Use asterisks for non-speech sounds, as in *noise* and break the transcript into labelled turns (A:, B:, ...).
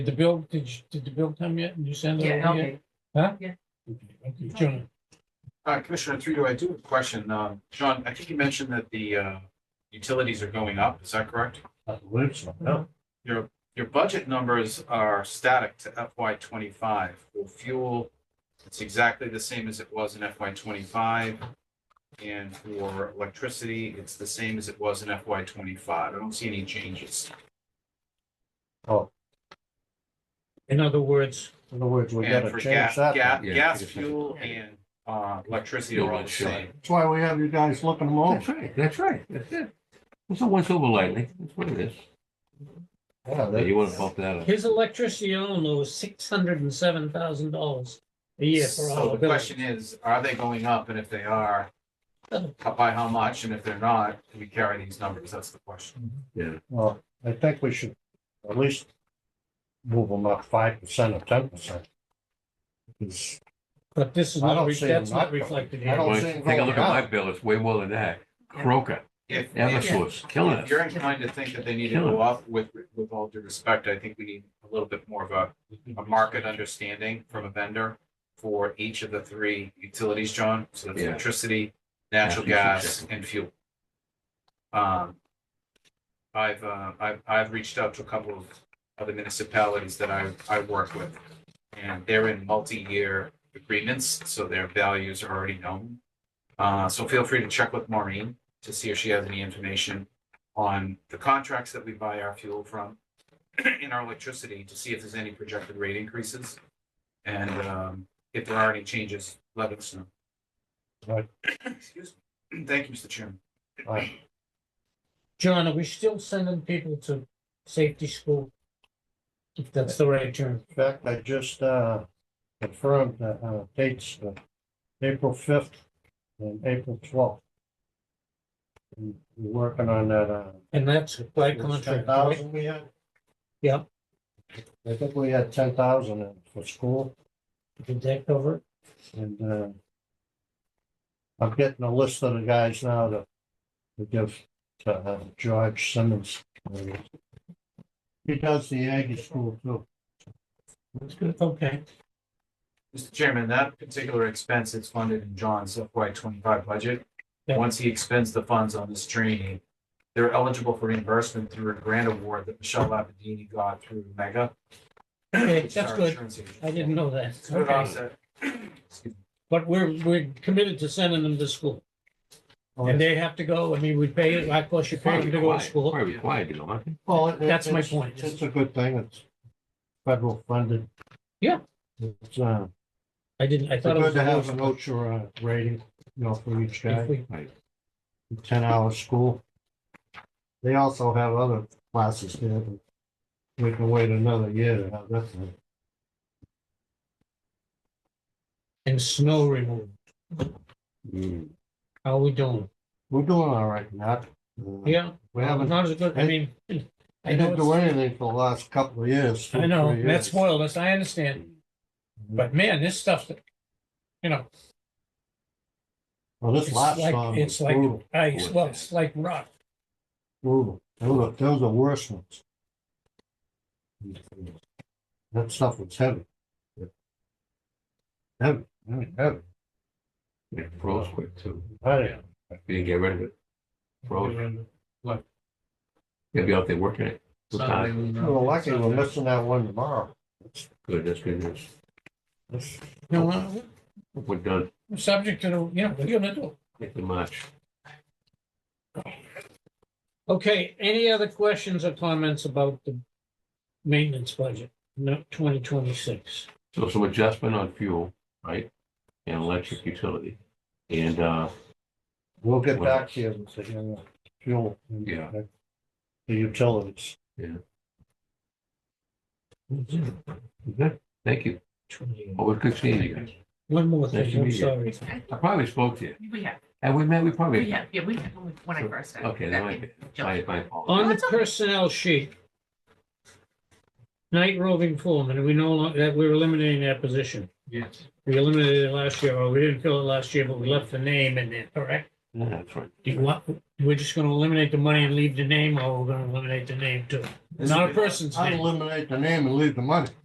A: Did the bill, did you, did the bill come yet? Did you send it
B: Yeah,
A: over yet?
B: okay.
A: Huh?
B: Yeah.
A: Okay, okay, John,
C: Uh, Commissioner Trido, I do have a question. Uh, John, I think you mentioned that the, uh, utilities are going up. Is that correct?
A: I believe so.
B: No.
C: Your budget numbers are static to FY twenty-five. Well, fuel, it's exactly the same as it was in FY twenty-five. And for electricity, it's the same as it was in FY twenty-five. I don't see any changes.
A: In other words,
D: In other words, we
C: And
D: gotta
C: for
D: change
C: gas,
D: that.
C: gas,
E: Yeah,
C: gas,
E: it's different.
C: fuel and, uh, electricity are all the same.
D: That's why we have you guys looking them over.
E: That's right, that's right, that's it. It's a once over lightly, that's what it is.
D: Yeah,
E: Yeah, You
D: that-
E: wanna bump that up.
A: his electricity alone was six hundred and seven thousand dollars a year for all
C: So
A: the
C: the
A: bills.
C: question is, are they going up? And if they are, how- by how much? And if they're not, do we carry these numbers? That's the question.
D: Well, Uh, I think we should at least move them up five percent or ten percent. Because
A: But this is
D: I
A: not,
D: don't
A: re-
D: see
A: that's
D: them
A: not
D: not-
A: reflected
D: I
A: here.
D: don't
E: Well,
D: see
E: Take
D: it
E: a
D: going
E: look at my
D: up.
E: bill, it's way more than that. Croker,
C: If, if
E: Eversource, killing
C: if
E: us.
C: you're inclined to think that they need to go up with, with all due respect, I think we need a little bit more of a, a market understanding from a vendor for each of the three utilities, John. So that's
E: Yeah.
C: electricity, natural gas and fuel. Um, I've, uh, I've, I've reached out to a couple of other municipalities that I, I work with. And they're in multi-year agreements, so their values are already known. Uh, so feel free to check with Maureen to see if she has any information on the contracts that we buy our fuel from *clears throat* in our electricity to see if there's any projected rate increases. And, um, if there are any changes, let us know.
D: Right.
C: Excuse me. *clears throat* Thank you, Mr. Chairman.
D: Right.
A: John, are we still sending people to safety school? If that's the right term.
D: In fact, I just, uh, confirmed the, uh, dates of April fifth and April twelfth. We're working on that, uh.
A: And that's by contract, right?
D: 10,000 we had?
A: Yeah.
D: I think we had ten thousand for school.
A: Did that cover it?
D: And, uh, I'm getting a list of the guys now to, to give to uh, George Simmons. He does the Aggie School too.
A: That's good. Okay,
C: Mr. Chairman, that particular expense is funded in John's FY twenty-five budget.
A: Yeah.
C: Once he expends the funds on this training, they're eligible for reimbursement through a grant award that Michelle Labadini got through Mega.
A: Okay,
C: which is
A: that's
C: our
A: good.
C: insurance agent.
A: I didn't know that.
C: It's a good
A: Okay,
C: offset. *clears throat* Excuse me.
A: but we're, we're committed to sending them to school.
D: Oh,
A: And they have to go, I mean, we pay, it. of course, you pay them to go to school.
E: Probably required, you know, aren't they?
D: Well, it- it-
A: That's my
D: it's-
A: point.
D: It's a good thing. It's federal funded.
A: Yeah.
D: It's, uh,
A: I didn't, I
D: it's
A: thought it was.
D: good to have an OSHA uh, rating, you know, for each guy.
A: If we-
D: ten hour school. They also have other classes there, but we can wait another year to have that one.
A: And snow removal, how we doing?
D: We're doing all right, Matt. Uh,
A: Yeah,
D: We haven't,
A: not as good, I mean, *laughs* I
D: I
A: know,
D: didn't do
A: it's-
D: anything for the last couple of years. two,
A: I know,
D: three
A: that
D: years. Mm-hmm.
A: spoiled us, I understand. But man, this stuff, that you know,
D: Well, this
A: it's
D: last
A: like,
D: storm was
A: it's like
D: brutal,
A: ice, well, it's like rock.
D: brutal. Those are, those are worse ones. That stuff was heavy. Heavy, heavy, heavy.
E: Yeah, froze quick too.
D: Right.
E: We didn't get rid of it. Froze.
C: What?
E: You'll be out there working it. Good time.
D: We're lucky we're missing that one tomorrow.
E: Good, that's good news.
D: This-
A: You know, uh,
E: We're done,
A: we're subject to, the- you know, what are you gonna do?
E: Make the March.
A: Okay, any other questions or comments about the maintenance budget, no, twenty twenty-six?
E: So some adjustment on fuel, right? And electric utility. And, uh,
D: We'll get
E: Well-
D: back to you with the, uh, fuel. and,
E: Yeah.
D: uh, The utilities.
A: Mm-hmm.
E: good. thank you. Always good seeing you guys.
A: One more
E: Nice
A: thing,
E: to
A: I'm
E: meet you.
A: sorry.
E: I probably spoke to you.
B: We have,
E: Have we met? We probably.
B: we have, yeah, we have, when I first started.
E: Okay, that
B: back
E: might
B: in
E: be-
B: July.
E: My, my fault.
A: On the
B: That's okay.
A: personnel sheet. Night roving foreman, we no longer, that we're eliminating that position.
C: Yes.
A: We eliminated it last year, or we didn't fill it last year, but we left the name in there, correct?
E: Yeah, that's right.
A: Do you want, we're just gonna eliminate the money and leave the name, or we're gonna eliminate the name too? Not a person's
D: I'd
A: name.
D: eliminate the name and leave the money.